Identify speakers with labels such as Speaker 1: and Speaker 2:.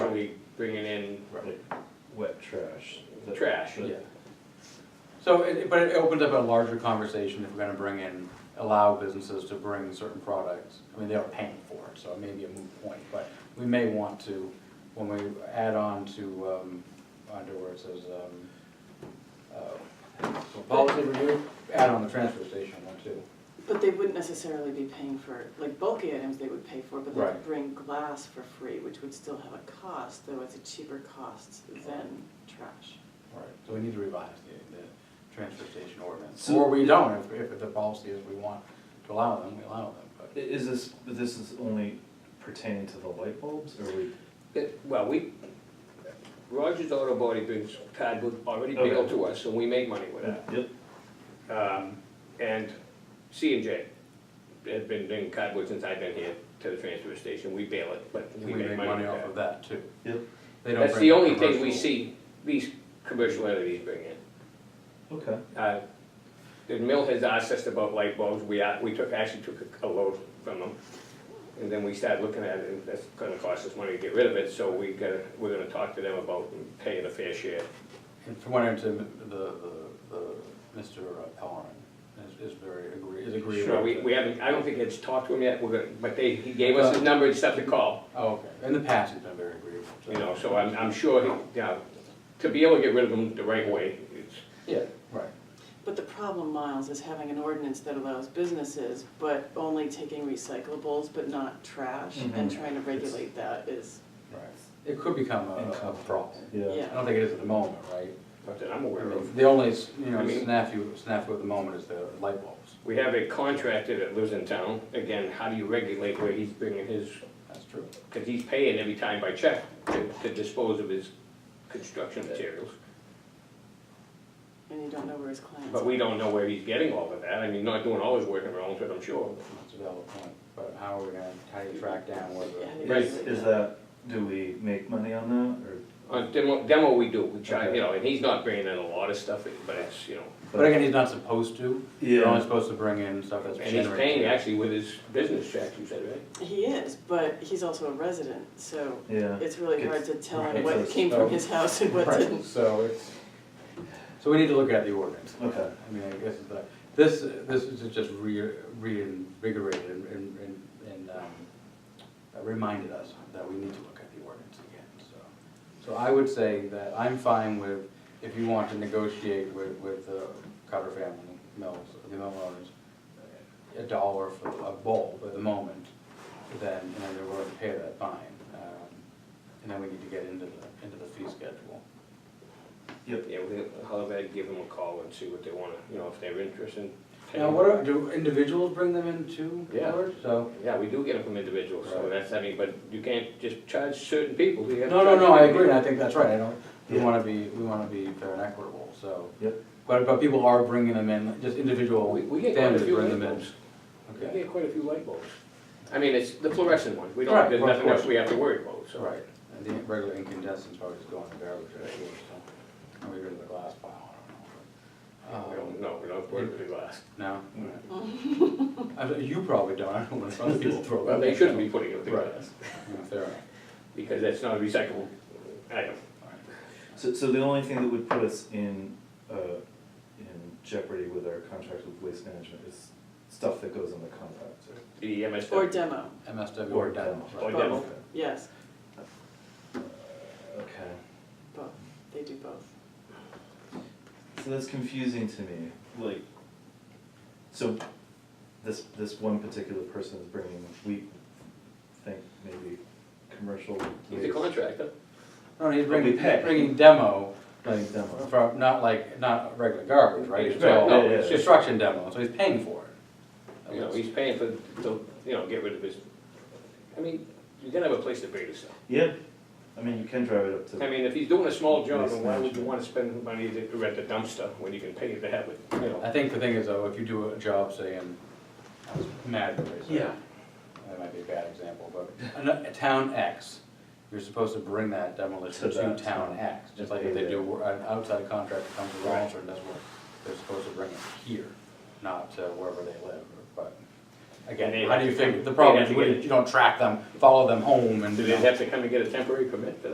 Speaker 1: bringing in
Speaker 2: Right, wet trash. that-
Speaker 1: trash,
Speaker 2: that-
Speaker 1: yeah.
Speaker 3: So, it- but it opens up a larger conversation if we're gonna bring in, allow businesses to bring certain products. I mean, they are paying for it, so it may be a moot point, but we may want to, when we add on to, um, under where it says, um, uh, policy review, add on the transfer station one too.
Speaker 4: But they wouldn't necessarily be paying for, like bulky items they would pay for, but they
Speaker 3: Right.
Speaker 4: could bring glass for free, which would still have a cost, though it's a cheaper cost than trash.
Speaker 3: Right. So we need to revise the, the transfer station ordinance,
Speaker 2: So-
Speaker 3: or we don't, if, if the policy is we want to allow them, we allow them, but.
Speaker 2: I- Is this, this is only pertaining to the light bulbs, or we?
Speaker 1: It- Well, we, Rogers Auto Body brings cardboard already
Speaker 2: Okay.
Speaker 1: bailed to us, and we make money with that.
Speaker 2: Yep.
Speaker 1: Um, and C and J have been doing cardboard since I've been here to the transfer station, we bail it, but
Speaker 3: We make money off of that too.
Speaker 2: Yep.
Speaker 3: They don't
Speaker 1: That's
Speaker 3: bring
Speaker 1: the
Speaker 3: in
Speaker 1: only thing we
Speaker 3: commercial-
Speaker 1: see these commercial entities bring in.
Speaker 2: Okay.
Speaker 1: Uh, The mill has asked us about light bulbs, we, a- we took, actually took a- a load from them. And then we started looking at it, and that's gonna cost us money to get rid of it, so we gotta, we're gonna talk to them about paying a fair share.
Speaker 3: And from what I understand, the, the, the, Mr. Pellerin is, is very agree, is agreeable.
Speaker 1: Sure, we,
Speaker 3: to-
Speaker 1: we haven't, I don't think it's talked to him yet, we're gonna, but they, he gave us his number and stuff to call,
Speaker 3: Oh, okay, in the past, he's been very agreeable. to-
Speaker 1: you know, so I'm, I'm sure, he- yeah, to be able to get rid of them the right way, it's,
Speaker 3: Yeah, right.
Speaker 4: But the problem, Miles, is having an ordinance that allows businesses, but only taking recyclables, but not trash, and
Speaker 2: Mhm.
Speaker 4: trying to regulate that is,
Speaker 3: Right. It could become a, a problem.
Speaker 2: Yeah.
Speaker 4: Yeah.
Speaker 3: I don't think it is at the moment, right?
Speaker 1: not that I'm
Speaker 3: I
Speaker 1: aware of.
Speaker 3: mean, The only, you know,
Speaker 1: I mean-
Speaker 3: snafu, snafu at the moment is the light bulbs,
Speaker 1: We have a contractor that lives in town, again, how do you regulate where he's bringing his,
Speaker 3: that's true.
Speaker 1: because he's paying every time by check to, to dispose of his construction materials.
Speaker 4: and you don't know where his clients
Speaker 1: But
Speaker 4: are.
Speaker 1: we don't know where he's getting all of that, I mean, not doing all his work in Rollinsford, I'm sure.
Speaker 3: That's a valid point, but how are we gonna, how do you track down whether?
Speaker 4: Yeah.
Speaker 2: Is, is that, do we make money on that, or?
Speaker 1: On demo, demo we do, we try, you know, and he's not bringing in a lot of stuff, but it's, you know,
Speaker 3: But again, he's not supposed to. You're only supposed to bring in stuff that's
Speaker 1: And he's
Speaker 3: generated.
Speaker 1: paying actually with his business check, you said, right?
Speaker 4: He is, but he's also a resident, so
Speaker 2: Yeah.
Speaker 4: it's really
Speaker 2: It's-
Speaker 4: hard to tell
Speaker 3: right.
Speaker 4: him what
Speaker 2: It's a-
Speaker 4: came
Speaker 3: oh.
Speaker 4: from his house and what
Speaker 3: Right,
Speaker 4: didn't.
Speaker 3: So it's, so we need to look at the ordinance.
Speaker 2: Okay.
Speaker 3: I mean, I guess it's the, this, this is just re- reinvigorated and, and, and- and, um, uh, reminded us that we need to look at the ordinance again, so. So I would say that I'm fine with, if you want to negotiate with, with the Carter family mills, the mill owners, a dollar for a bulb at the moment, then, and then they're willing to pay that fine. Um, And then we need to get into the, into the fee schedule.
Speaker 1: Yeah, we'll, I'll have Ed give them a call and see what they wanna, you know, if they're interested. in
Speaker 3: Now,
Speaker 1: paying.
Speaker 3: what are, do individuals bring them in too,
Speaker 1: Yeah.
Speaker 3: George? So,
Speaker 1: Yeah, we do get them from individuals, so
Speaker 3: Right.
Speaker 1: that's, I mean, but you can't just charge certain people. You have to
Speaker 3: no, no,
Speaker 1: charge
Speaker 3: no, I
Speaker 1: everybody.
Speaker 3: agree, and I think that's right, I don't, we
Speaker 2: Yeah.
Speaker 3: wanna be, we wanna be fair and equitable, so.
Speaker 2: Yep.
Speaker 3: But, but people are bringing them in, just individual
Speaker 1: We, we get quite a
Speaker 3: families
Speaker 1: few
Speaker 3: bring
Speaker 1: light
Speaker 3: them in.
Speaker 1: bulbs. We
Speaker 3: Okay,
Speaker 1: get quite a few light bulbs. I mean, it's the fluorescent ones, we
Speaker 3: Right,
Speaker 1: don't, there's
Speaker 3: well, of
Speaker 1: nothing else
Speaker 3: course.
Speaker 1: we have to worry about, so.
Speaker 3: right, and the regular incandescents probably just go in the garbage, right, so, and we go to the glass pile, I
Speaker 1: We don't,
Speaker 3: don't know.
Speaker 1: no, we don't worry with the glass.
Speaker 3: No? I don't- You probably don't, I don't know what other people throw.
Speaker 1: Well, they shouldn't be putting it through
Speaker 3: Right.
Speaker 1: glass,
Speaker 3: Yeah, fair enough.
Speaker 1: because that's not a recyclable item.
Speaker 2: So, so the only thing that would put us in, uh, in jeopardy with our contract with waste management is stuff that goes in the compactor.
Speaker 1: The E MSW.
Speaker 4: Or demo,
Speaker 3: MSW
Speaker 2: Or
Speaker 3: or demo,
Speaker 2: demo.
Speaker 3: right.
Speaker 1: Or demo.
Speaker 2: Okay.
Speaker 4: yes,
Speaker 2: Okay,
Speaker 4: both, they do both.
Speaker 2: so that's confusing to me, like, so this, this one particular person is bringing, we think maybe commercial
Speaker 1: He's a
Speaker 2: waste-
Speaker 1: contractor.
Speaker 3: No, he's
Speaker 2: But we
Speaker 3: bringing,
Speaker 2: pay.
Speaker 3: bringing demo
Speaker 2: Like demo.
Speaker 3: from, not like, not regular garbage, right? It's
Speaker 1: Right,
Speaker 3: all
Speaker 1: no,
Speaker 2: yeah, yeah.
Speaker 3: construction demo, so he's paying for it.
Speaker 1: You know, he's paying for, to, you know, get rid of his, I mean, you gotta have a place to bury this stuff.
Speaker 2: Yeah, I mean, you can drive it up to.
Speaker 1: I mean, if he's doing a small job, then why would you wanna spend money to rent a dumpster when you can pay to have it, you know?
Speaker 3: I think the thing is though, if you do a job saying, I was mad at this.
Speaker 2: Yeah.
Speaker 3: That might be a bad example, but, a, a town X, you're supposed to bring that demolition
Speaker 2: To
Speaker 3: to
Speaker 2: that
Speaker 3: town
Speaker 2: town.
Speaker 3: X. Just like if they do, wor- an outside contractor comes to Rollinsford and does work, they're supposed to bring it here, not to wherever they live, but.
Speaker 1: And they
Speaker 3: Again, how
Speaker 1: have
Speaker 3: do you
Speaker 1: to come-
Speaker 3: figure, the problem
Speaker 1: they'd
Speaker 3: is
Speaker 1: have
Speaker 3: you
Speaker 1: to get
Speaker 3: wouldn't- you don't track them, follow them home and.
Speaker 1: Do
Speaker 3: you
Speaker 1: they
Speaker 3: know.
Speaker 1: have to come and get a temporary permit for that?